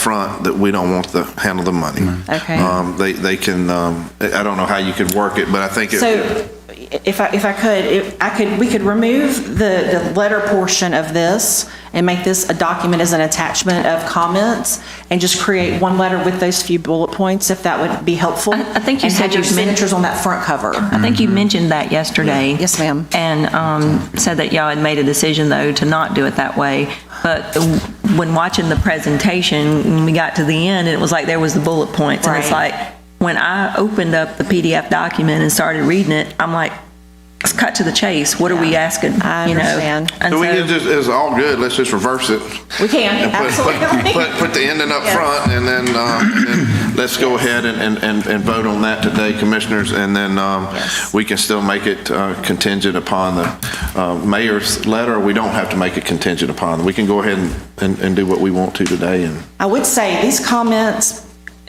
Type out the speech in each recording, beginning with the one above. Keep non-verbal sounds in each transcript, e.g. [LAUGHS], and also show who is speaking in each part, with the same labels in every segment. Speaker 1: front that we don't want to handle the money.
Speaker 2: Okay.
Speaker 1: Um, They, they can, um, I I don't know how you could work it, but I think it.
Speaker 2: So if I, if I could, if I could, we could remove the, the letter portion of this and make this a document as an attachment of comments and just create one letter with those few bullet points, if that would be helpful.
Speaker 3: I- I think you said
Speaker 2: And have your
Speaker 3: you've men-
Speaker 2: signatures on that front cover.
Speaker 3: I think you mentioned that yesterday.
Speaker 2: Mm-hmm. Yes, ma'am.
Speaker 3: And um, said that y'all had made a decision, though, to not do it that way. But when watching the presentation, when we got to the end, it was like there was the bullet points. And it's
Speaker 2: Right.
Speaker 3: like, when I opened up the PDF document and started reading it, I'm like, let's cut to the chase. What are we asking?
Speaker 2: I
Speaker 3: you know?
Speaker 2: understand.
Speaker 3: And
Speaker 1: So we
Speaker 3: so-
Speaker 1: can just, it's all good, let's just reverse it.
Speaker 2: We can,
Speaker 1: And [LAUGHS] put- put-
Speaker 2: absolutely.
Speaker 1: Put, put the ending up
Speaker 2: Yes.
Speaker 1: front, and then, um, and then let's go ahead and- and, and, and vote on that today, commissioners, and then, um, we can still make it uh, contingent upon the, uh, mayor's letter, we don't have to make it contingent upon, we can go ahead and, and, and do what we want to today, and.
Speaker 2: I would say these comments,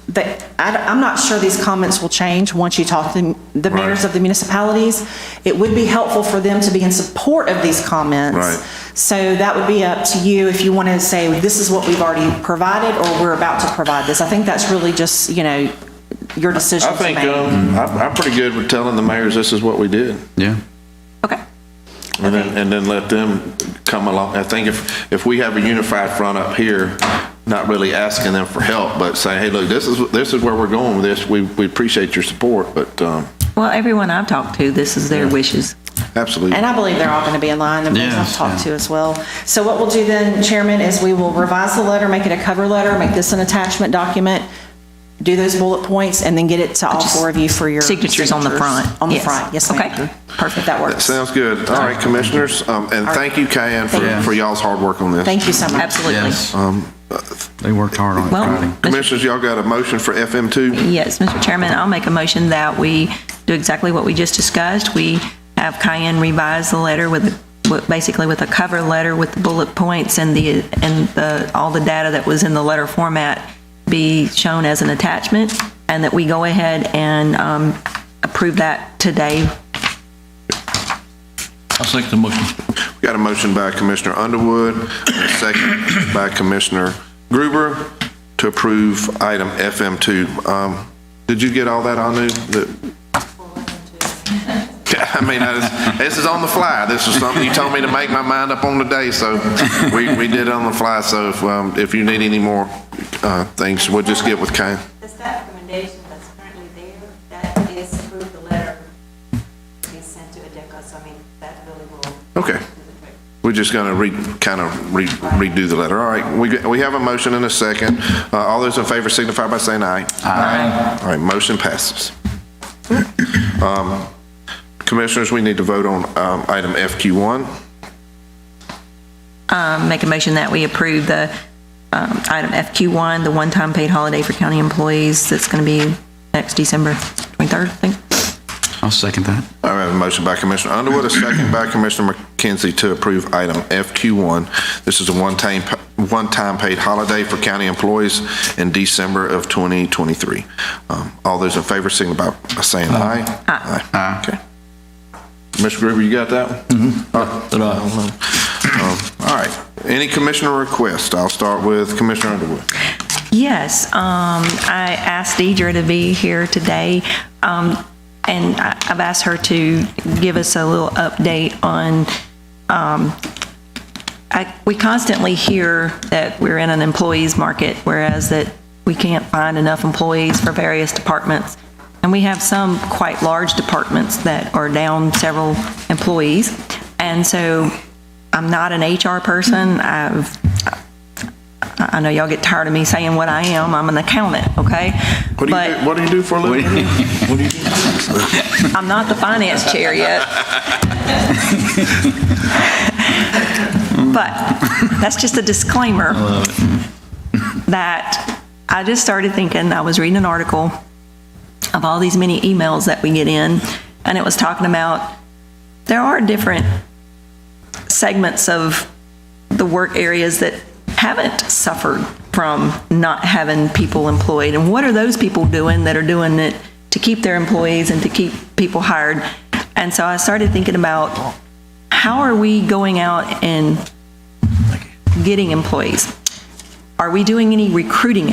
Speaker 2: that, I, am not sure these comments will change once you talk to the mayors
Speaker 1: Right.
Speaker 2: of the municipalities. It would be helpful for them to be in support of these comments.
Speaker 1: Right.
Speaker 2: So that would be up to you if you want to say, this is what we've already provided, or we're about to provide this. I think that's really just, you know, your decision
Speaker 1: I
Speaker 2: to make.
Speaker 1: think, um, I'm, I'm pretty good with telling the mayors this is what we did,
Speaker 4: Yeah.
Speaker 3: Okay.
Speaker 1: and then, and then let them come along, I think if, if we have a unified front up here, not really asking them for help, but saying, hey, look, this is, this is where we're going with this, we, we appreciate your support, but, um,
Speaker 3: Well, everyone I've talked to, this is their wishes.
Speaker 1: absolutely.
Speaker 2: And I believe they're all going to be in line, the ones I've
Speaker 4: Yes,
Speaker 2: talked
Speaker 4: yeah.
Speaker 2: to as well. So what we'll do then, Chairman, is we will revise the letter, make it a cover letter, make this an attachment document, do those bullet points, and then get it to all four of you for your.
Speaker 3: Signatures on the front.
Speaker 2: On the
Speaker 3: Yes.
Speaker 2: front, yes, ma'am.
Speaker 3: Okay.
Speaker 2: Perfect, that works.
Speaker 1: Sounds good. All right, commissioners, um, and thank you, Kayan, for,
Speaker 4: Thank you.
Speaker 1: for y'all's hard work on this.
Speaker 2: Thank you so much.
Speaker 3: Absolutely.
Speaker 4: Um, They worked hard on it,
Speaker 3: Well-
Speaker 4: Friday.
Speaker 1: Commissioners, y'all got a motion for FM two?
Speaker 3: Yes, Mr. Chairman, I'll make a motion that we do exactly what we just discussed. We have Cayenne revise the letter with, with- basically with a cover letter with the bullet points and the, and the, all the data that was in the letter format be shown as an attachment, and that we go ahead and um, approve that today.
Speaker 5: I'll second the motion.
Speaker 1: Got a motion by Commissioner Underwood, and a second by Commissioner Gruber to approve item FM two. Um, did you get all that, Anu? The- [LAUGHS] I mean, I just- this is on the fly. This is something you told me to make my mind up on today, so we, we did it on the fly. So if, um, if you need any more, uh, things, we'll just get with Kayan.
Speaker 6: The staff recommendation that's currently there, that is through the letter being sent to ADECA, so I mean, that really will do
Speaker 1: Okay.
Speaker 6: the trick.
Speaker 1: We're just going to re, kind of re redo the letter. All right, we, we have a motion and a second. Uh, All those in favor signify by saying aye. Aye. All right, motion passes. Um, Commissioners, we need to vote on um, item FQ1.
Speaker 3: Um, Make a motion that we approve the um, item FQ1, the one-time paid holiday for county employees that's going to be next December 23rd, I think.
Speaker 4: I'll second that.
Speaker 1: I have a motion by Commissioner Underwood, a second by Commissioner McKenzie to approve item FQ1. This is a one-time, one-time paid holiday for county employees in December of 2023. Um, All those in favor signify by saying aye. Aye. Okay. Mr. Gruber, you got that one? Mm-hmm. All right. Any commissioner requests? I'll start with Commissioner Underwood.
Speaker 3: Yes, um, I asked Deidre to be here today, um, and I- I've asked her to give us a little update on, um, I- we constantly hear that we're in an employees market, whereas that we can't find enough employees for various departments. And we have some quite large departments that are down several employees. And so I'm not an HR person. I've I I know y'all get tired of me saying what I am. I'm an accountant, okay?
Speaker 1: What do you, do-
Speaker 3: But
Speaker 1: what do you do for a [LAUGHS] living?
Speaker 3: I'm not the finance chair yet. But that's just a disclaimer that I just started thinking, I was reading an article of all these many emails that we get in, and it was talking about there are different segments of the work areas that haven't suffered from not having people employed? And what are those people doing that are doing it to keep their employees and to keep people hired? And so I started thinking about how are we going out and getting employees? Are we doing any recruiting